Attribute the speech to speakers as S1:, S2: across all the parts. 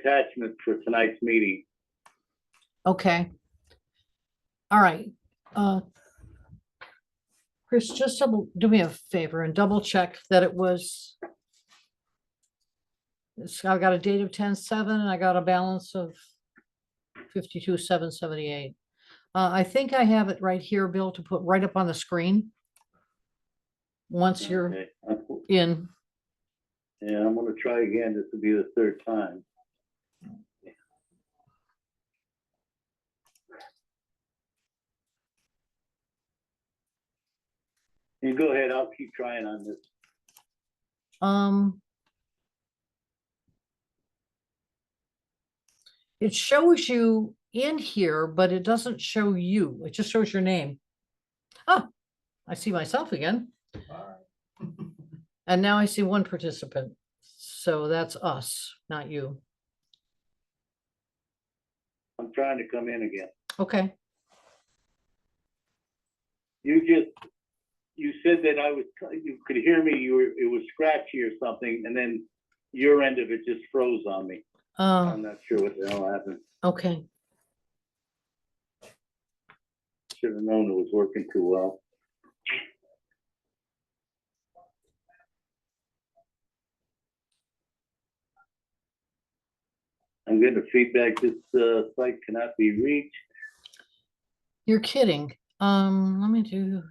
S1: attachment for tonight's meeting.
S2: Okay. All right. uh, Chris, just double, do me a favor and double check that it was. it's- I've got a date of ten seven and I got a balance of fifty-two, seven seventy-eight. Uh, I think I have it right here, Bill, to put right up on the screen. Once you're
S1: Okay. I'm-
S2: in,
S1: Yeah, I'm gonna try again. This will be the third time. You go ahead. I'll keep trying on this.
S2: um. It shows you in here, but it doesn't show you. It just shows your name. Ah, I see myself again. And now I see one participant. So that's us, not you.
S1: I'm trying to come in again.
S2: Okay,
S1: You just, you said that I was, you could hear me, you were, it was scratchy or something, and then your end of it just froze on me.
S2: uh,
S1: I'm not sure what the hell happened.
S2: okay.
S1: Should have known it was working too well. I'm getting feedback, this uh, site cannot be reached.
S2: You're kidding. Um, let me do.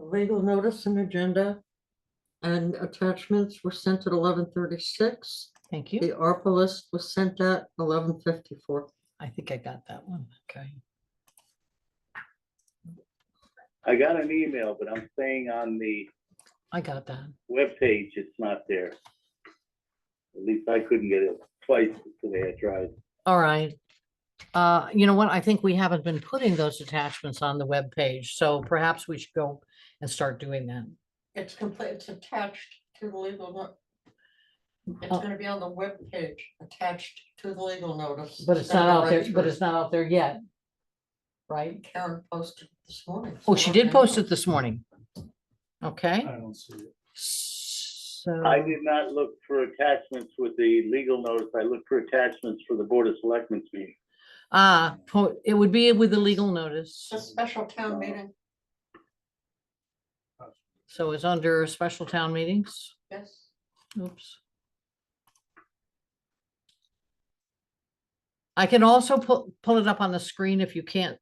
S3: A Legal notice and agenda and attachments were sent at eleven thirty-six.
S2: Thank
S3: The
S2: you.
S3: ARPA list was sent at eleven fifty-four.
S2: I think I got that one. Okay.
S1: I got an email, but I'm saying on the
S2: I got that.
S1: webpage, it's not there. At least I couldn't get it twice today, I tried.
S2: All right. Uh, you know what? I think we haven't been putting those attachments on the web page, so perhaps we should go and start doing that.
S3: It's complete, it's attached to the legal. no- It's
S2: Oh.
S3: gonna be on the webpage, attached to the legal notice.
S2: But it's
S3: that
S2: not
S3: I
S2: out there,
S3: write
S2: but
S3: for
S2: it's not out there yet. Right?
S3: Karen posted this morning.
S2: Oh,
S3: so
S2: she
S3: I
S2: did
S3: don't
S2: post
S3: know.
S2: it this morning. Okay.
S4: I don't see it.
S2: So,
S1: I did not look for attachments with the legal notice, I looked for attachments for the Board of Selectmen's meeting.
S2: ah, po- it would be with the legal notice.
S3: It's a special town meeting,
S2: So it's under special town meetings.
S3: yes.
S2: Oops. I can also pull, pull it up on the screen if you can't.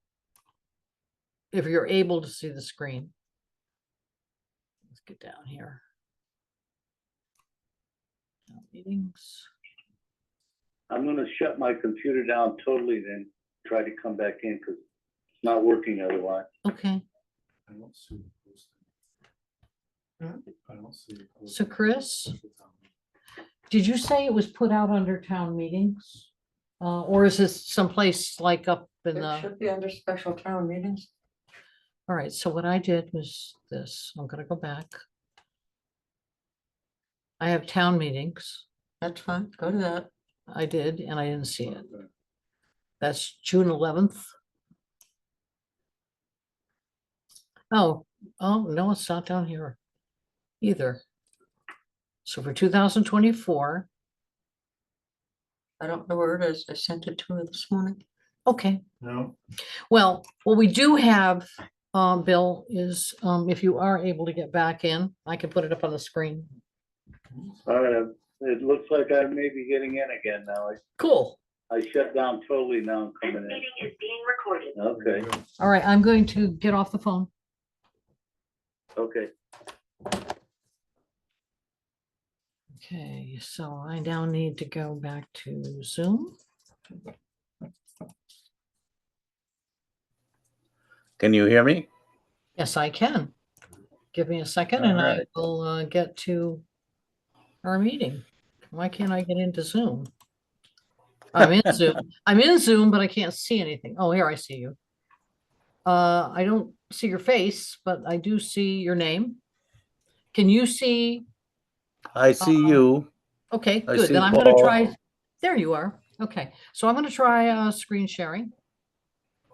S2: If you're able to see the screen. Let's get down here. Town Meetings,
S1: I'm gonna shut my computer down totally then try to come back in because it's not working otherwise.
S2: okay,
S4: I don't see it posted. I don't see it.
S2: Hmm? so
S4: posted.
S2: Chris, did you say it was put out under town meetings? Uh, or is this someplace like up in the?
S3: It should be under special town meetings.
S2: All right, so what I did was this, I'm gonna go back. I have town meetings,
S3: That's fine, go to that.
S2: I did, and I didn't see it. That's June eleventh. Oh, oh, no, it's not down here either. So for two thousand twenty-four,
S3: I don't know where it is. I sent it to her this morning.
S2: okay,
S4: No,
S2: Well, what we do have, um, Bill, is, um, if you are able to get back in, I can put it up on the screen.
S1: All right, it looks like I may be getting in again now. I-
S2: Cool.
S1: I shut down totally now I'm
S5: This
S1: coming in.
S5: meeting is being recorded.
S1: Okay,
S2: All right, I'm going to get off the phone.
S1: okay.
S2: Okay, so I now need to go back to Zoom.
S6: Can you hear me?
S2: Yes, I can. Give me a second and I
S6: Alright.
S2: will uh, get to our meeting. Why can't I get into Zoom? I'm in Zoom. I'm in Zoom, but I can't see anything. Oh, here I see you. Uh, I don't see your face, but I do see your name. Can you see?
S6: I see
S2: Uh,
S6: you.
S2: Okay,
S6: I
S2: good.
S6: see
S2: Then I'm gonna
S6: Paul.
S2: try, there you are. Okay, so I'm gonna try uh screen sharing.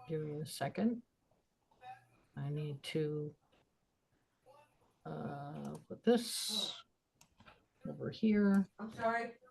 S2: Give me a second. I need to uh put this
S7: over here.
S2: I'm sorry.